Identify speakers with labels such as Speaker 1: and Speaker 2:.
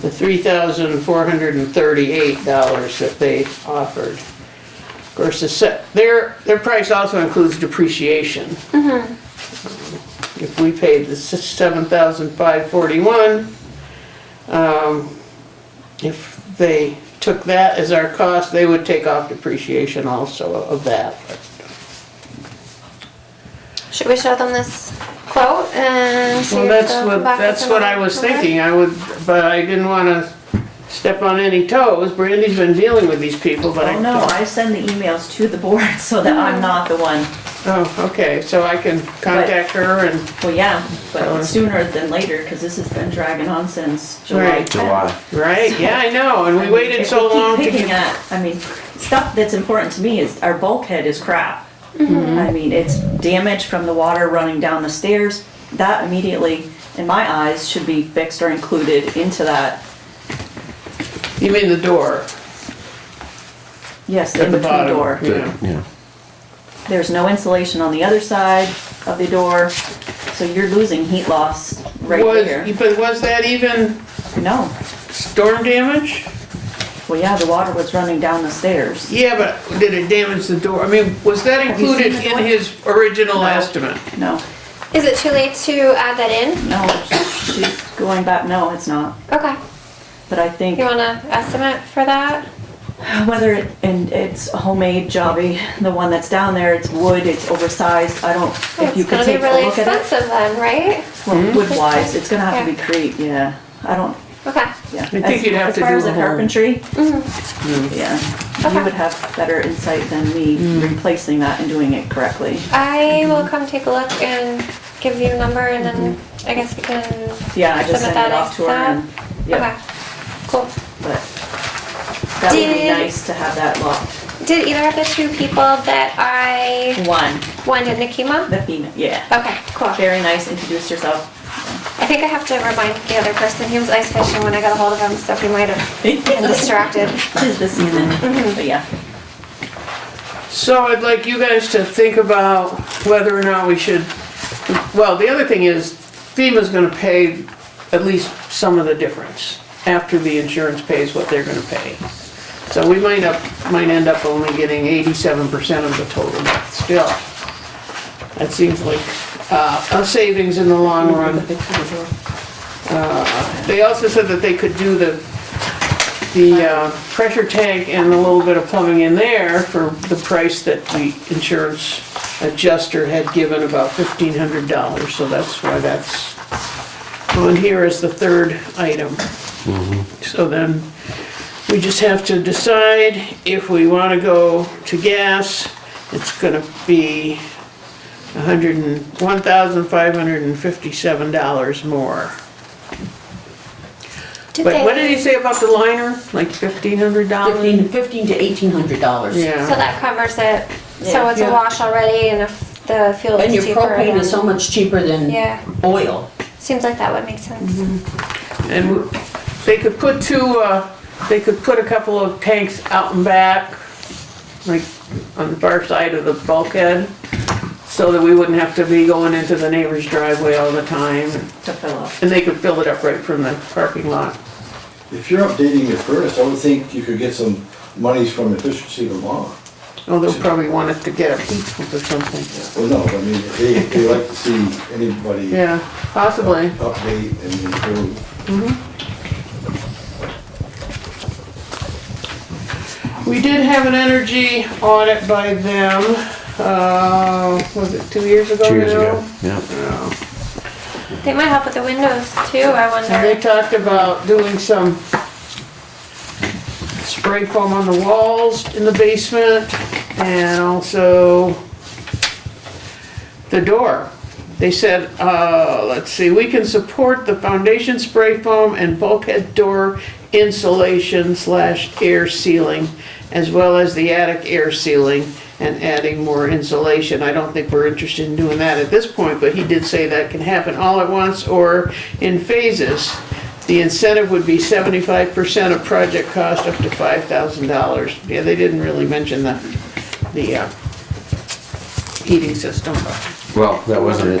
Speaker 1: the three thousand four hundred and thirty-eight dollars that they offered. Of course, the set, their, their price also includes depreciation.
Speaker 2: Mm-hmm.
Speaker 1: If we paid the seven thousand five forty-one, um, if they took that as our cost, they would take off depreciation also of that.
Speaker 3: Should we show them this quote and see
Speaker 1: Well,
Speaker 3: if
Speaker 1: that's
Speaker 3: they'll
Speaker 1: what,
Speaker 3: come back with
Speaker 1: that's what I
Speaker 3: another
Speaker 1: was
Speaker 3: number?
Speaker 1: thinking, I would, but I didn't wanna step on any toes, Brandy's been dealing with these people, but I.
Speaker 2: Oh, no, I send the emails to the board so that I'm not the one.
Speaker 1: Oh, okay, so I can contact her and,
Speaker 2: Well, yeah,
Speaker 1: Sure.
Speaker 2: but sooner than later, because this has been dragging on since July.
Speaker 1: Right.
Speaker 4: July.
Speaker 1: right, yeah, I know, and we waited so long to
Speaker 2: If we keep picking
Speaker 1: get.
Speaker 2: at, I mean, stuff that's important to me is, our bulkhead is crap. I mean, it's damage from the water running down the stairs. That immediately, in my eyes, should be fixed or included into that.
Speaker 1: You mean the door?
Speaker 2: Yes,
Speaker 1: At
Speaker 2: in
Speaker 1: the
Speaker 2: between
Speaker 1: bottom.
Speaker 2: door.
Speaker 1: Yeah.
Speaker 4: Yeah.
Speaker 2: There's no insulation on the other side of the door, so you're losing heat loss right there.
Speaker 1: Was, but was that even
Speaker 2: No,
Speaker 1: storm damage?
Speaker 2: well, yeah, the water was running down the stairs.
Speaker 1: Yeah, but did it damage the door? I mean, was that
Speaker 2: you seen
Speaker 1: included
Speaker 2: the
Speaker 1: in
Speaker 2: door?
Speaker 1: his original
Speaker 2: No.
Speaker 1: estimate?
Speaker 2: No,
Speaker 3: Is it too late to add that in?
Speaker 2: no, she's going back, no, it's not.
Speaker 3: Okay.
Speaker 2: But I think
Speaker 3: You want an estimate for that?
Speaker 2: whether, it and it's homemade jobby, the one that's down there, it's wood, it's oversized, I don't, if you
Speaker 3: it's
Speaker 2: could
Speaker 3: gonna be
Speaker 2: take a
Speaker 3: really
Speaker 2: look at it.
Speaker 3: expensive then, right?
Speaker 1: Hmm?
Speaker 2: Well, wood wise, it's gonna have to
Speaker 3: Yeah.
Speaker 2: be crete, yeah. I don't,
Speaker 3: Okay.
Speaker 2: yeah.
Speaker 1: think
Speaker 2: As-
Speaker 1: you'd have to do
Speaker 2: As far
Speaker 1: a
Speaker 2: as the
Speaker 1: whole- Hmm.
Speaker 2: carpentry,
Speaker 3: Mhm.
Speaker 2: yeah,
Speaker 3: Okay.
Speaker 2: you would have better insight than me replacing that and doing it correctly.
Speaker 3: I will come take a look and give you a number and then
Speaker 2: Mm-hmm.
Speaker 3: I guess we can.
Speaker 2: Yeah, I just
Speaker 3: submit
Speaker 2: sent
Speaker 3: that
Speaker 2: it off to her and,
Speaker 3: extra.
Speaker 2: yeah,
Speaker 3: Okay. Cool.
Speaker 2: but that would be
Speaker 3: Did-
Speaker 2: nice to have that locked.
Speaker 3: Did either of the two people that I
Speaker 2: One,
Speaker 3: wanted Nikima?
Speaker 2: the female, yeah.
Speaker 3: Okay, cool.
Speaker 2: Very nice, introduce yourself.
Speaker 3: I think I have to remind the other person. He was ice fishing when I got a hold of him, so he might have been distracted.
Speaker 2: is the season, but yeah.
Speaker 1: So I'd like you guys to think about whether or not we should, well, the other thing is FEMA's gonna pay at least some of the difference after the insurance pays what they're gonna pay. So we might up, might end up only getting eighty-seven percent of the total, but still. That seems like, uh, a savings in the long run. Uh, They also said that they could do the the uh, pressure tank and a little bit of plumbing in there for the price that the insurance adjuster had given, about fifteen hundred dollars, so that's why that's on here as the third item. So then, we just have to decide if we wanna go to gas, it's gonna be a hundred and, one thousand five hundred and fifty-seven dollars more.
Speaker 3: Did
Speaker 1: But
Speaker 3: they,
Speaker 1: what did he say about the liner, like fifteen hundred dollars?
Speaker 5: Fifteen, fifteen to eighteen hundred dollars.
Speaker 3: So
Speaker 1: Yeah,
Speaker 3: that covers it. So
Speaker 2: Yeah.
Speaker 3: it's a wash already, and if the fuel is
Speaker 5: And your
Speaker 3: cheaper.
Speaker 5: propane is
Speaker 3: then-
Speaker 5: so much cheaper than
Speaker 3: Yeah,
Speaker 5: oil.
Speaker 3: seems like that would make sense.
Speaker 2: Mm-hmm.
Speaker 1: and w- they could put two, uh, they could put a couple of tanks out and back, like on the far side of the bulkhead, so that we wouldn't have to be going into the neighbor's driveway all the time,
Speaker 2: to fill up.
Speaker 1: and they could fill it up right from the parking lot.
Speaker 6: If you're updating your furnace, I would think you could get some monies from efficiency tomorrow.
Speaker 1: Oh, they'll probably want us to get a heat pump or something.
Speaker 6: Well, no, I mean, they, they like to see anybody
Speaker 1: Yeah, possibly.
Speaker 6: update and improve.
Speaker 1: We did have an energy audit by them, uh, was it two years ago now?
Speaker 4: Two years ago. Yeah.
Speaker 3: They might help with the windows too, I
Speaker 1: And they
Speaker 3: wonder.
Speaker 1: talked about doing some spray foam on the walls in the basement and also the door. They said, uh, let's see, we can support the foundation spray foam and bulkhead door insulation slash air sealing as well as the attic air sealing and adding more insulation. I don't think we're interested in doing that at this point, but he did say that can happen all at once or in phases. The incentive would be seventy-five percent of project cost up to five thousand dollars. Yeah, they didn't really mention the, the, uh, heating system, but.
Speaker 4: Well, that wasn't it.